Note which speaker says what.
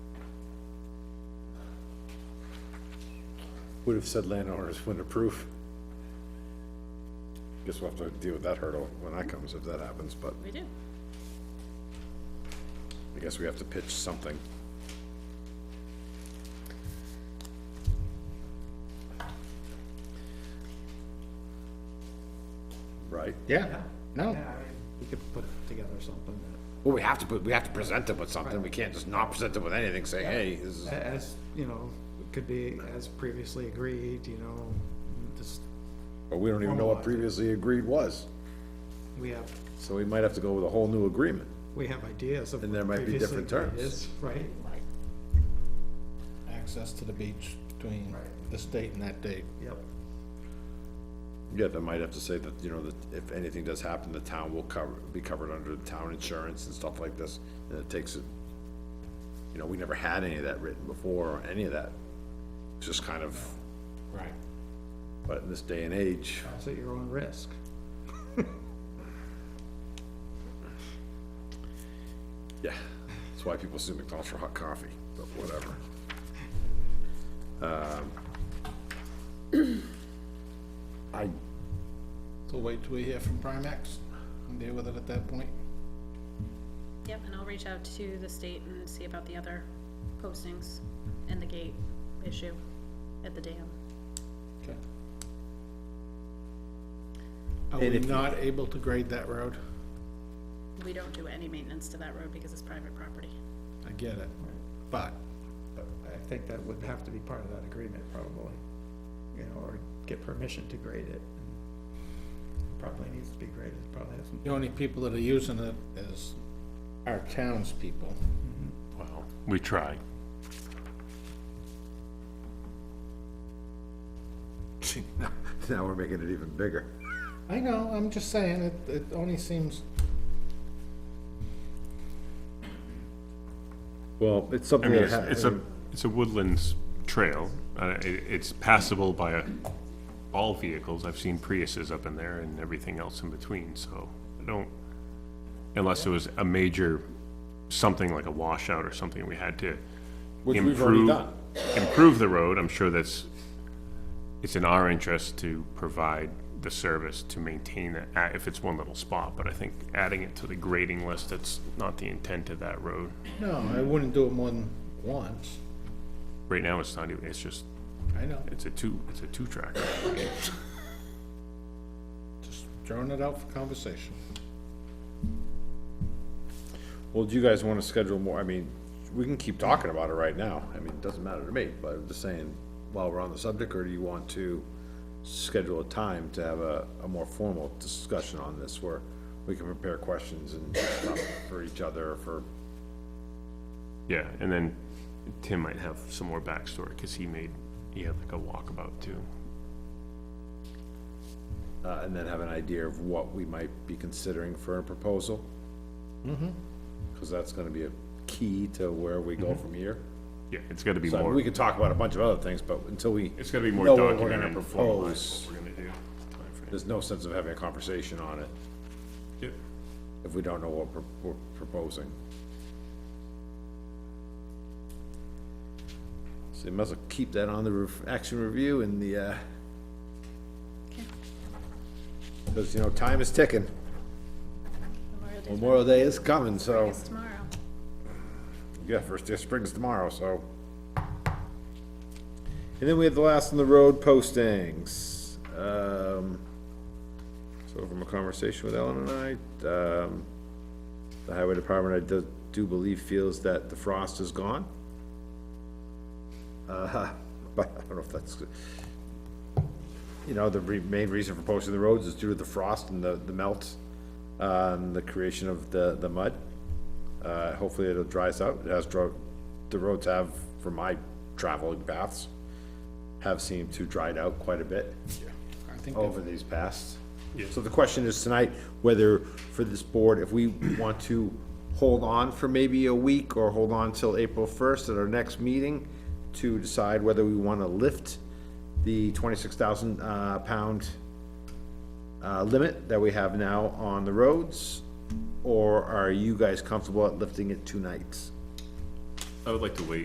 Speaker 1: would have said landowners wouldn't approve. Guess we'll have to deal with that hurdle when that comes, if that happens, but
Speaker 2: We do.
Speaker 1: I guess we have to pitch something. Right?
Speaker 3: Yeah, no.
Speaker 4: Yeah, I mean, we could put together something
Speaker 1: Well, we have to put, we have to present them with something. We can't just not present them with anything, say, hey, this is.
Speaker 4: that, as, you know, could be as previously agreed, you know, just,
Speaker 1: But we don't even know what previously agreed was,
Speaker 4: we have,
Speaker 1: so we might have to go with a whole new agreement.
Speaker 4: we have ideas of.
Speaker 1: And
Speaker 4: what
Speaker 1: there might be
Speaker 4: previously
Speaker 1: different terms.
Speaker 4: agreed is, Right,
Speaker 3: Access to the beach between this date and that date.
Speaker 4: yep,
Speaker 1: Yeah, they might have to say that, you know, that if anything does happen, the town will cover, be covered under the town insurance and stuff like this, and it takes it. You know, we never had any of that written before, or any of that, It's just kind of,
Speaker 3: Right.
Speaker 1: but in this day and age,
Speaker 4: it's at your own risk.
Speaker 1: yeah, that's why people sue McDonald's for hot coffee, but whatever. Um,
Speaker 3: So wait till we hear from Primex and deal with it at that point.
Speaker 2: Yep, and I'll reach out to the state and see about the other postings and the gate issue at the dam.
Speaker 3: Okay. Are we not able to grade that road?
Speaker 2: We don't do any maintenance to that road because it's private property.
Speaker 3: I get it, but
Speaker 4: But I think that would have to be part of that agreement probably, you know, or get permission to grade it. Probably needs to be graded, probably hasn't.
Speaker 3: the only people that are using it is our townspeople.
Speaker 1: Wow,
Speaker 5: We try.
Speaker 1: now we're making it even bigger.
Speaker 3: I know, I'm just saying, it, it only seems,
Speaker 1: Well, it's
Speaker 5: I
Speaker 1: something
Speaker 5: mean,
Speaker 1: that
Speaker 5: it's, it's a, it's a woodlands trail. Uh, it, it's passable by a, all vehicles. I've seen Priuses up in there and everything else in between, so I don't, unless it was a major, something like a washout or something, we had to
Speaker 1: Which we've already
Speaker 5: improve,
Speaker 1: done.
Speaker 5: improve the road. I'm sure that's, it's in our interest to provide the service to maintain it, uh, if it's one little spot, but I think adding it to the grading list, that's not the intent of that road.
Speaker 3: no, I wouldn't do it more than once.
Speaker 5: Right now, it's not even, it's just,
Speaker 3: I know,
Speaker 5: it's a two, it's a two-track.
Speaker 3: just throwing it out for conversation.
Speaker 1: Well, do you guys wanna schedule more, I mean, we can keep talking about it right now, I mean, it doesn't matter to me, but I'm just saying, while we're on the subject, or do you want to schedule a time to have a, a more formal discussion on this, where we can prepare questions and stuff for each other, for,
Speaker 5: Yeah, and then Tim might have some more backstory, because he made, he had like a walkabout too.
Speaker 1: uh, and then have an idea of what we might be considering for a proposal? Mm-hmm. Cause that's gonna be a key to where we go from here.
Speaker 5: Yeah, it's gotta be
Speaker 1: So I mean, we
Speaker 5: more,
Speaker 1: could talk about a bunch of other things, but until we.
Speaker 5: it's gotta be more
Speaker 1: know what we're gonna
Speaker 5: documented and
Speaker 1: propose.
Speaker 5: formalized, what we're gonna do. timeframe.
Speaker 1: there's no sense of having a conversation on it
Speaker 5: Yep.
Speaker 1: if we don't know what we're- we're proposing. So you might as well keep that on the ref- action review and the, uh, because, you know, time is ticking.
Speaker 2: Memorial Day's
Speaker 1: Memorial Day is coming, so,
Speaker 2: It's tomorrow.
Speaker 1: yeah, first day of spring's tomorrow, so. And then we had the last on the road postings. Um, so from a conversation with Ellen and I, um, the highway department, I do, do believe feels that the frost is gone. Uh, but I don't know if that's, you know, the re- main reason for posting the roads is due to the frost and the, the melt, uh, and the creation of the, the mud. Uh, hopefully it'll dries out, it has dro, the roads have, from my traveling paths, have seemed to dried out quite a bit
Speaker 3: I think
Speaker 1: over these past. So the question is tonight, whether for this board, if we want to hold on for maybe a week or hold on till April first at our next meeting to decide whether we want to lift the twenty-six thousand, uh, pound uh, limit that we have now on the roads, or are you guys comfortable at lifting it two nights?
Speaker 5: I would like to wait